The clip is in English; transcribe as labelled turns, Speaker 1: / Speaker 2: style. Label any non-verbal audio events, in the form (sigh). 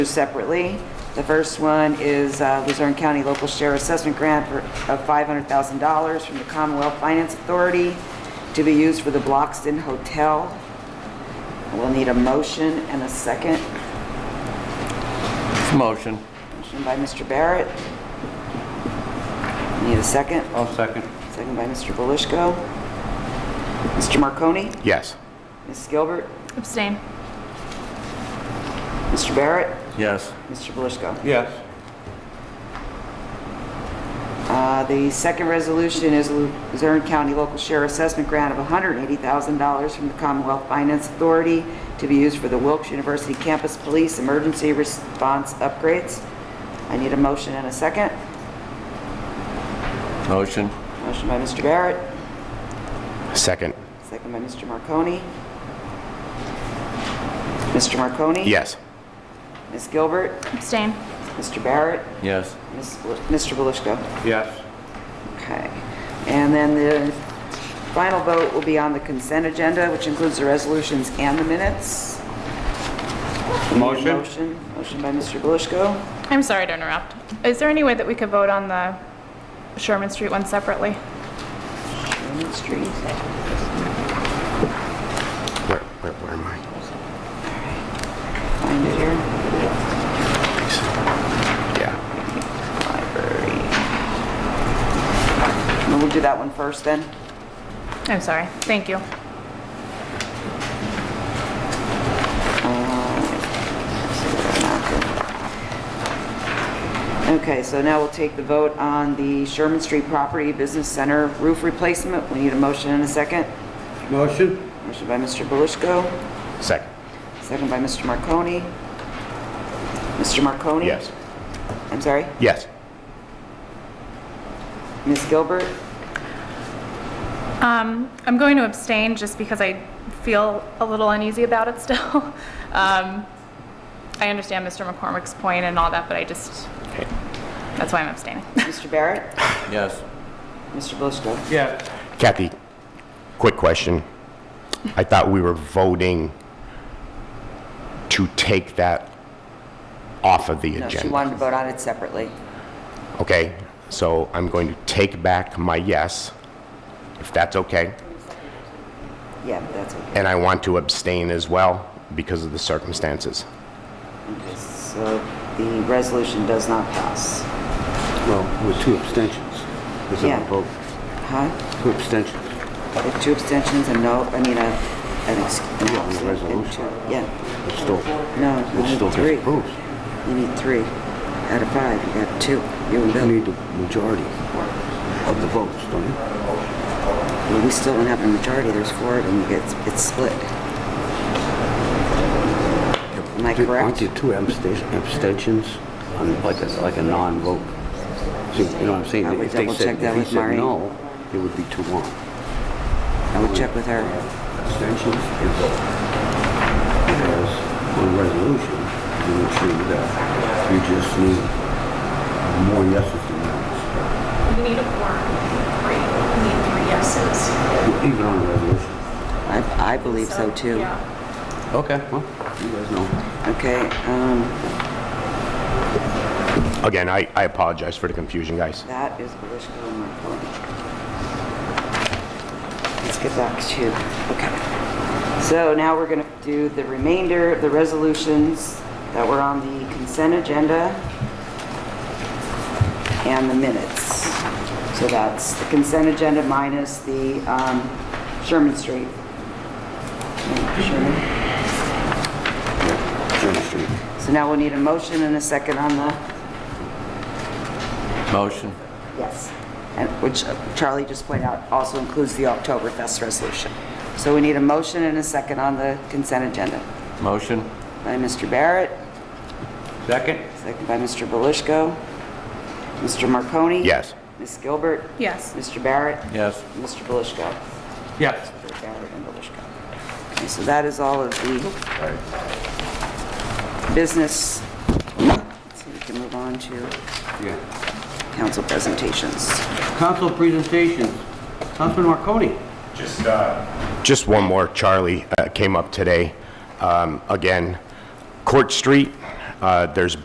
Speaker 1: separately. The first one is uh, Luzerne County Local Share Assessment Grant for- of $500,000 from the Commonwealth Finance Authority to be used for the Bloxton Hotel. We'll need a motion and a second.
Speaker 2: Motion.
Speaker 1: Motion by Mr. Barrett. Need a second.
Speaker 2: I'll second.
Speaker 1: Second by Mr. Belishko. Mr. Marconi?
Speaker 3: Yes.
Speaker 1: Ms. Gilbert?
Speaker 4: Abstain.
Speaker 1: Mr. Barrett?
Speaker 2: Yes.
Speaker 1: Mr. Belishko?
Speaker 2: Yes.
Speaker 1: Uh, The second resolution is Luzerne County Local Share Assessment Grant of $180,000 from the Commonwealth Finance Authority to be used for the Wilkes University Campus Police Emergency Response Upgrades. I need a motion and a second.
Speaker 2: Motion.
Speaker 1: Motion by Mr. Barrett,
Speaker 3: Second.
Speaker 1: second by Mr. Marconi. Mr. Marconi?
Speaker 3: Yes.
Speaker 1: Ms. Gilbert?
Speaker 4: Abstain.
Speaker 1: Mr. Barrett?
Speaker 2: Yes.
Speaker 1: Ms. Bel- Mr. Belishko?
Speaker 2: Yes.
Speaker 1: Okay. And then the final vote will be on the consent agenda, which includes the resolutions and the minutes. We need a
Speaker 2: Motion.
Speaker 1: Motion, motion by Mr. Belishko.
Speaker 4: I'm sorry to interrupt. Is there any way that we could vote on the Sherman Street one separately?
Speaker 1: Sherman Street.
Speaker 3: Where, where, where am I?
Speaker 1: Find it here.
Speaker 3: Yeah.
Speaker 1: Library. We'll do that one first then.
Speaker 4: I'm sorry. Thank you.
Speaker 1: Okay, so now we'll take the vote on the Sherman Street Property Business Center roof replacement. We need a motion and a second.
Speaker 2: Motion.
Speaker 1: Motion by Mr. Belishko.
Speaker 3: Second.
Speaker 1: Second by Mr. Marconi. Mr. Marconi?
Speaker 3: Yes.
Speaker 1: I'm sorry?
Speaker 3: Yes.
Speaker 1: Ms. Gilbert?
Speaker 4: Um, I'm going to abstain just because I feel a little uneasy about it still. (laughs) Um, I understand Mr. McCormick's point and all that, but I just,
Speaker 3: Okay.
Speaker 4: that's why I'm abstaining.
Speaker 1: Mr.
Speaker 5: (laughs)
Speaker 1: Barrett?
Speaker 2: Yes.
Speaker 1: Mr. Bushko?
Speaker 2: Yes.
Speaker 3: Kathy, quick question. I thought we were voting to take that off of the
Speaker 1: No,
Speaker 3: agenda.
Speaker 1: she wanted to vote on it separately.
Speaker 3: Okay, so I'm going to take back my yes, if that's okay.
Speaker 1: Yeah, that's okay.
Speaker 3: And I want to abstain as well because of the circumstances.
Speaker 1: Okay, So the resolution does not pass.
Speaker 5: Well, with two abstentions. Is it
Speaker 1: Yeah.
Speaker 5: a vote?
Speaker 1: Huh?
Speaker 5: Two abstentions.
Speaker 1: With two abstentions and no, I mean, a, an ex- an
Speaker 5: Yeah, on the
Speaker 1: absent and
Speaker 5: resolution.
Speaker 1: two- Yeah,
Speaker 5: It's still,
Speaker 1: no,
Speaker 5: it
Speaker 1: you
Speaker 5: still
Speaker 1: need three.
Speaker 5: gets approved.
Speaker 1: You need three out of five. You got two. You and
Speaker 5: You
Speaker 1: Bill.
Speaker 5: need the majority of the votes, don't you?
Speaker 1: Well, we still don't have a majority. There's four of them. You get, it's split. Am I
Speaker 5: Aren't
Speaker 1: correct?
Speaker 5: there two absta- abstentions on like a, like a non-vote? See, you know what I'm saying?
Speaker 1: I would
Speaker 5: If they
Speaker 1: double
Speaker 5: said-
Speaker 1: check that
Speaker 5: if he
Speaker 1: with
Speaker 5: said
Speaker 1: Maureen.
Speaker 5: no, it would be two one.
Speaker 1: I would check with her.
Speaker 5: Abstentions is vote. Whereas on resolution, you would see that you just need more yeses than noes,
Speaker 6: You need a quorum, three, you need three yeses.
Speaker 5: even on a resolution.
Speaker 1: I, I believe so too.
Speaker 6: Yeah.
Speaker 2: Okay.
Speaker 5: Well, you guys know.
Speaker 1: Okay, um,
Speaker 3: Again, I, I apologize for the confusion, guys.
Speaker 1: that is Belishko and Marconi. Let's get back to, okay. So now we're gonna do the remainder of the resolutions that were on the consent agenda and the minutes. So that's the consent agenda minus the, um, Sherman Street. Sherman?
Speaker 5: Sherman Street.
Speaker 1: So now we'll need a motion and a second on the,
Speaker 2: Motion.
Speaker 1: yes, and which uh, Charlie just pointed out also includes the Oktoberfest resolution. So we need a motion and a second on the consent agenda.
Speaker 2: Motion.
Speaker 1: By Mr. Barrett,
Speaker 2: Second.
Speaker 1: second by Mr. Belishko. Mr. Marconi?
Speaker 3: Yes.
Speaker 1: Ms. Gilbert?
Speaker 4: Yes.
Speaker 1: Mr. Barrett?
Speaker 2: Yes.
Speaker 1: Mr. Belishko?
Speaker 2: Yes.
Speaker 1: Mr. Barrett and Belishko. Okay, So that is all of the business. So we can move on to
Speaker 5: Yeah.
Speaker 1: council presentations.
Speaker 5: Council presentations. Councilman Marconi.
Speaker 7: Just, uh,
Speaker 3: Just one more, Charlie uh, came up today. Um, Again, Court Street, Uh, There's